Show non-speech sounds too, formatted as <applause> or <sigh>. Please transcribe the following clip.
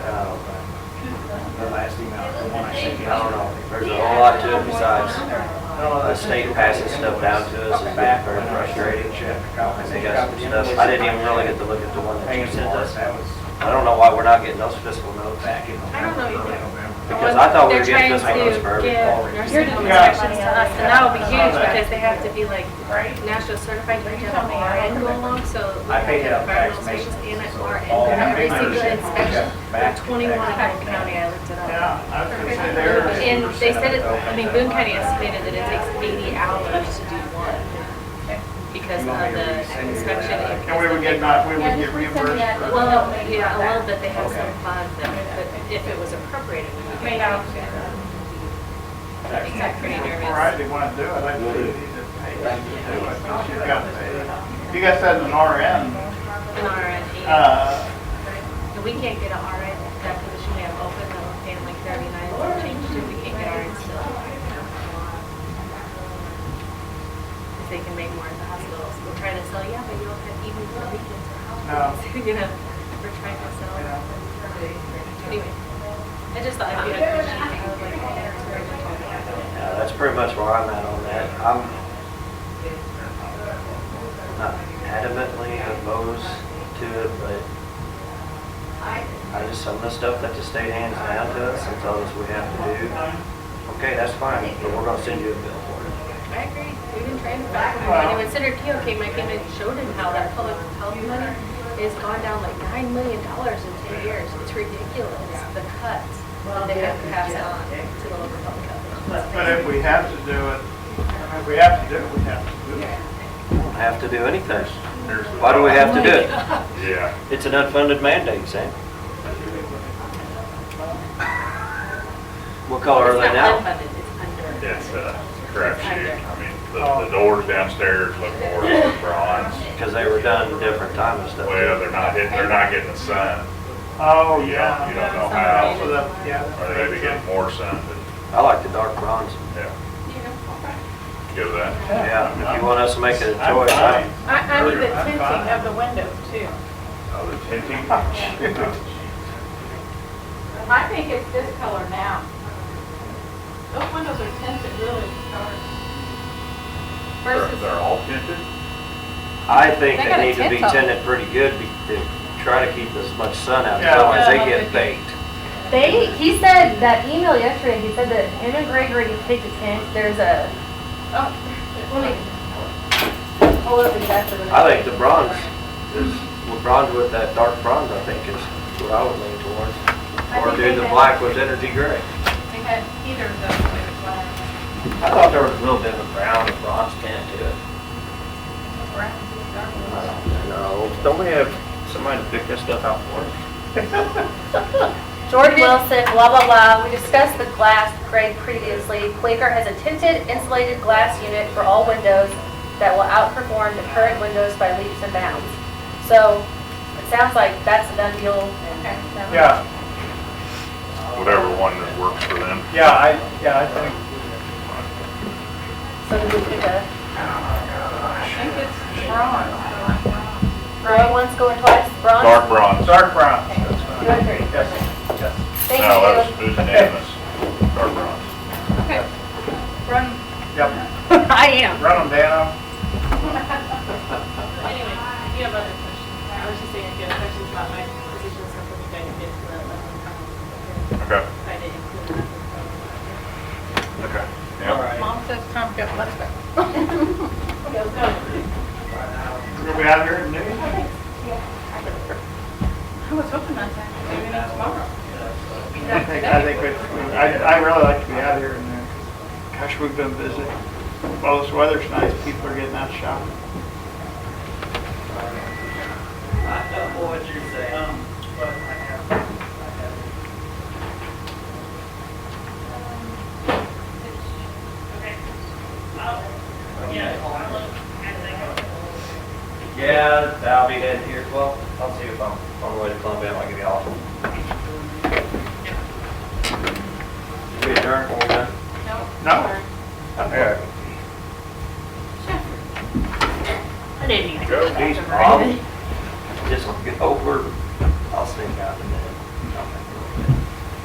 I don't know, there's a whole lot to it besides the state passing stuff down to us and back, very frustrating. And they got some stuff, I didn't even really get to look at the one that you sent us. I don't know why we're not getting those fiscal notes. I don't know either. Because I thought we were They're getting trying fiscal notes for to every give nursing home inspections to us, and that'll be huge because they have to be like national certified to have an R and go along, so we have to have environmental inspections and an R and for every single inspection. There are Twenty-one in Boone County, I looked it up. I was gonna say there. And they said it, I mean, Boone County estimated that it takes eighty hours to do one because of the inspection. and And we would get, not- we would get reimbursed for. Well, yeah, a little bit, they have some fund that, but if it was appropriated, we would get it. Makes me pretty nervous. All right, they want to do it, I think you need to pay them to do it, but you got to pay them. You got that in an RN, an RN, uh, and we can't get an RN, that position we have open, that will pay like thirty-nine, it's changed, and we can't get RN still. Because they can make more at the hospitals, we're trying to sell, yeah, but you don't have even for weekends or holidays, <laughs> you know, we're trying to sell. Anyway, I just thought I'd be appreciative, I was like, oh, that's great. Yeah, that's pretty much where I'm at on that. I'm not adamantly opposed to it, but I just, some of the stuff that the state hands down to us and tells us we have to do, okay, that's fine, but we're gonna send you a bill for it. I agree. We've been trying to back him. And when Senator Keough came, I came and showed him how that public health money has gone down like nine million dollars in ten years. It's ridiculous, the cuts that they have to pass on to the local public health. but if we have to do it, if we have to do it, we have to do it. We don't have to do anything. Why do we have to do <laughs> it? Yeah. It's an unfunded mandate, Sam. What color are they It's now? not unfunded, it's under. It's a crapshoot. I mean, the, the doors downstairs look more like bronze. Because they were done different time and stuff. Well, they're not hitting, they're not getting the sun. Oh, You yeah. don't, you don't know how, So that- yeah. or they may be getting more sun, but, I like the dark bronze. yeah. Give that. Yeah, if you want us to make it a I'm choice, fine. I- I, I need the I'm tinting fine. of the windows too. Oh, the tinting. I think it's this color now. Those windows are tinted really dark. They're, Versus, they're all tinted? I think They got a they need to be tint on. tinted pretty good be- to try to keep as much sun out, Yeah. otherwise they Yeah. get baked. They, he said that email yesterday, he said that him and Greg already picked a tent, there's a, oh, let me, pull up exactly what I think the bronze is, well, bronze with that dark bronze, I think is what I would lean towards. think Or do they the had- black with energy gray. They had either of those. they were black. I thought there was a little bit of a brown and bronze tint to it. I don't know. Don't we have somebody to pick this stuff out for us? George Wilson, blah, blah, blah, we discussed the glass, Greg, previously. Quaker has a tinted insulated glass unit for all windows that will outperform the current windows by leaps and bounds. So, it sounds like that's a done deal. Yeah, Whatever one that works for them. yeah, I, yeah, I think, So we pick a, I think it's bronze. going once, going twice, bronze, Dark bronze. dark brown. That's two fine. and three. Yes, yes. Thank No, that was, you. it was unanimous. Dark bronze. Okay. Run, Yep. I am. Run them down. anyway, if you have other questions. I was just saying, if you have questions about my position, something you guys did for that last time. Okay, um, I didn't include that. okay. Yep. Mom says time to go, let's go. Go, go. We're gonna be out here in noon. I was hoping not to have to do any tomorrow. I think, I think, we- I, I really like to be out here and, uh, gosh, we've been busy. Well, this weather's nice, people are getting out shopping. Yeah, I'll be headed here, well, I'll see if I'm on the way to Columbia, I'll give you all. We adjourn, are we done? No? Yeah. I didn't either. Go. These problems.